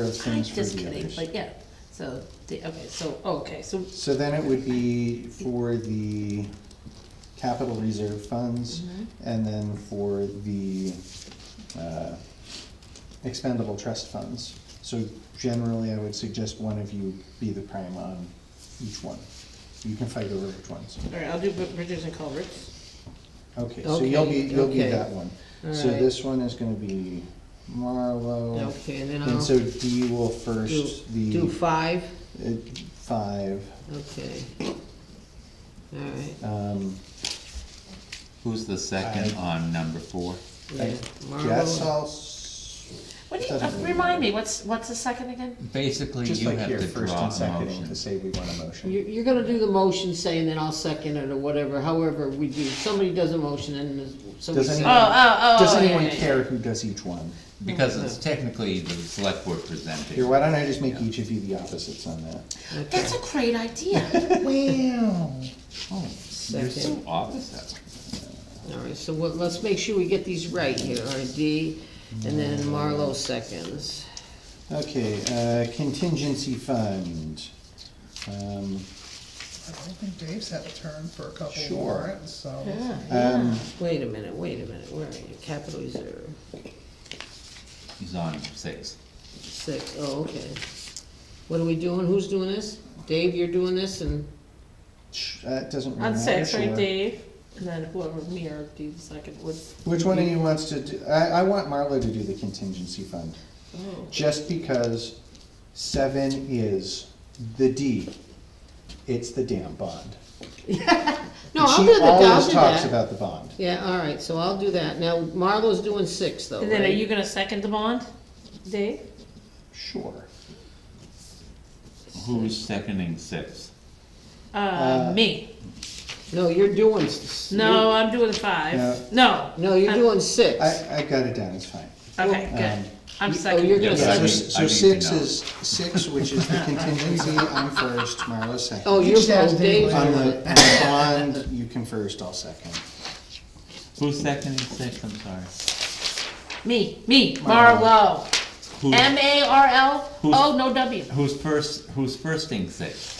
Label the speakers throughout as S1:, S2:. S1: those
S2: Height
S1: things for
S2: doesn't
S1: the
S2: make,
S1: others.
S2: but yeah, so, the- okay, so,
S3: oh,
S2: okay, so,
S1: So then it would be for the capital reserve funds
S3: Mm-hmm.
S1: and then for the, uh, expendable trust funds. So generally, I would suggest one of you be the prime on each one. You can fight over which ones.
S2: all right, I'll do br- bridges and culverts.
S1: Okay, so you'll be,
S3: Okay,
S1: you'll be
S3: okay.
S1: that one.
S3: All
S1: So
S3: right.
S1: this one is gonna be Marlowe.
S3: Okay, and then
S1: And
S3: I'll
S1: so D will
S3: do,
S1: first,
S3: do
S1: the
S3: five,
S1: uh, five.
S3: okay. Alright,
S1: Um,
S4: Who's the second
S1: I-
S4: on number four?
S3: yeah,
S1: I guess
S3: Marvel,
S1: I'll, s-
S2: What do you,
S1: Doesn't
S2: uh,
S1: really
S2: remind
S1: matter.
S2: me, what's, what's the second again?
S4: Basically,
S1: just
S4: you
S1: like
S4: have
S1: here,
S4: to
S1: first
S4: draw
S1: and
S4: a
S1: seconding to
S4: motion.
S1: say we want a motion.
S3: you're, you're gonna do the motion saying, then I'll second it or whatever, however we do, somebody does a motion and there's- somebody
S1: Does
S3: says.
S1: anyone-
S2: Oh, oh, oh,
S1: Does
S2: yeah,
S1: anyone
S2: yeah, yeah.
S1: care who does each one?
S4: Because it's technically the select board presenting.
S1: Here, why don't I just make each of you the opposites on that?
S3: Okay,
S2: That's a great idea.
S1: Wow.
S4: You're so
S3: Second,
S4: opposite.
S3: alright, so what, let's make sure we get these right here, alright, D, and then Marlowe seconds.
S1: Okay, uh, contingency fund. Um,
S5: I think Dave's had a turn for a couple
S1: Sure.
S5: warrants, so.
S1: um,
S3: Wait a minute, wait a minute, where are you, capital reserve,
S4: He's on six.
S3: six, oh, okay. What are we doing, who's doing this? Dave, you're doing this and,
S1: sh- That doesn't really
S2: On
S1: matter,
S2: six, right,
S1: sure.
S2: Dave? And then whoever, me or do the second would,
S1: Which one of you wants to do, I, I want Marlo to do the contingency fund,
S2: oh,
S1: just because seven is the D. It's the damn bond.
S3: no, I'll
S1: She
S3: do the, I'll do that.
S1: always talks about the bond.
S3: Yeah, all right, so I'll do that. Now, Marlo's doing six, though,
S2: and then are
S3: Oh, right?
S2: you gonna second the bond, Dave?
S1: Sure.
S4: Who's seconding six?
S2: Uh, me,
S3: No, you're doing. s-
S2: no, I'm doing five, no,
S3: No, you're
S2: I'm-
S3: doing six.
S1: I, I got it down, it's fine.
S2: okay,
S1: Um,
S2: good, I'm
S3: you- oh,
S2: second.
S3: you're
S1: Yeah,
S3: gonna
S4: Yes, I
S1: so,
S4: need-
S3: second.
S4: mean- I
S1: so
S4: need to
S1: six
S4: know.
S1: is, six, which is the contingency, I'm first, Marlo's second.
S3: Oh, you're
S5: Each has
S3: both, Dave's
S5: Dave.
S1: On
S3: doing
S1: the,
S3: it.
S1: on the bond, you can first, I'll second.
S4: Who's seconding six, I'm sorry?
S2: Me, me,
S1: Marlo.
S2: Marlo,
S4: Who's-
S2: M A R L,
S4: Who's-
S2: oh, no W,
S4: Who's first, who's firsting six?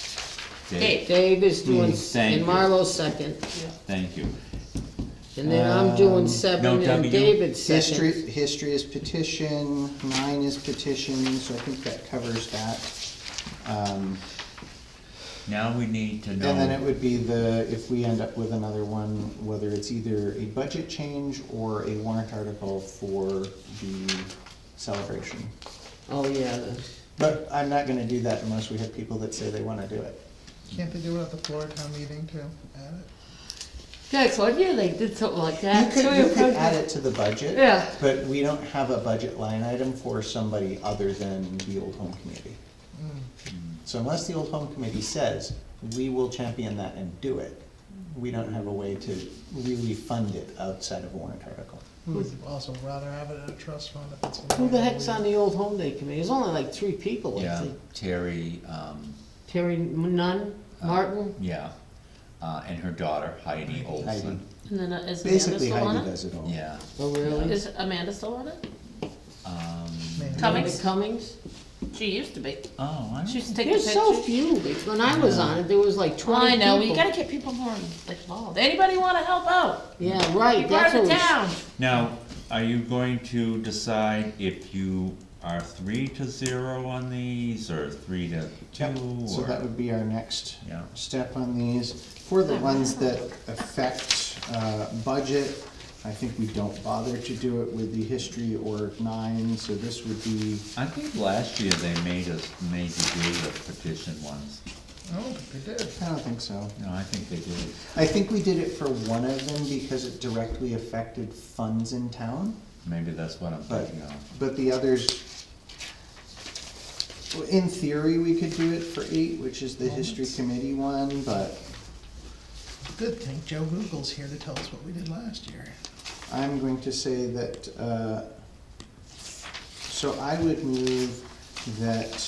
S2: Dave.
S3: Dave is doing, s-
S4: Thank
S3: and
S4: you.
S3: Marlo's second,
S4: Thank you.
S3: and then I'm doing
S1: Um,
S4: no
S3: seven,
S4: W?
S3: and David's
S1: History,
S3: second.
S1: history is petition, nine is petition, so I think that covers that. Um,
S4: Now we need to
S1: And then it
S4: know,
S1: would be the, if we end up with another one, whether it's either a budget change or a warrant article for the celebration.
S3: Oh, yeah, the-
S1: But I'm not gonna do that unless we have people that say they wanna do it.
S5: Can't they do it at the floor town meeting too? Add it?
S2: That's one year they did something like
S1: You
S2: that.
S1: could, you could add it to the budget.
S2: Yeah.
S1: But we don't have a budget line item for somebody other than the old home committee. Mm. So unless the old home committee says, we will champion that and do it, we don't have a way to really fund it outside of a warrant article.
S5: We would also rather have it at a trust fund if it's. gonna
S3: Hmm. who
S5: be
S3: the heck's on
S5: moved.
S3: the old home day committee? There's only like three people, I
S4: yeah,
S3: think.
S4: Terry, um,
S3: Terry Nunn, Martin,
S4: yeah, uh, and her daughter Heidi Olson.
S2: And then uh, is Amanda
S1: Basically,
S2: still
S1: Heidi
S2: on it?
S1: does it all.
S4: Yeah,
S3: oh, really?
S2: Uh, Is Amanda still on it?
S4: um,
S5: Maybe.
S2: Cummings?
S3: Amanda Cummings?
S2: She used to be.
S4: oh, I
S2: She
S4: don't,
S2: used to take the
S3: There's so
S2: pictures.
S3: few. When I was on it, there was like
S2: Well,
S3: twenty
S2: I
S3: people.
S2: know, you gotta get people more involved. Anybody wanna help out?
S3: Yeah,
S2: Be
S3: right,
S2: part
S3: that's
S2: of
S3: what
S2: the
S3: we.
S2: town.
S4: now, are you going to decide if you are three to zero on these, or three to
S1: Yep,
S4: two,
S1: So that
S4: or?
S1: would be our next
S4: Yeah.
S1: step on these. For the ones that affect uh, budget, I think we don't bother to do it with the history or nine, so this would be,
S4: I think last year they made us, made you do the petition ones.
S5: I don't think they did.
S1: I don't think so.
S4: No, I think they did.
S1: I think we did it for one of them because it directly affected funds in town,
S4: Maybe that's what I'm
S1: but,
S4: thinking of.
S1: but the others, well, in theory, we could do it for eight, which is the history committee one, but
S5: Good thing Joe Google's here to tell us what we did last year.
S1: I'm going to say that, uh, so I would move that,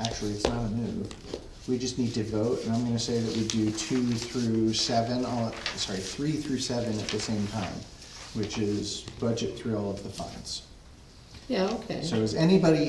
S1: actually, it's not a move. We just need to vote, and I'm gonna say that we do two through seven, all, sorry, three through seven at the same time, which is budget through all of the funds.
S3: Yeah, okay.
S1: So is anybody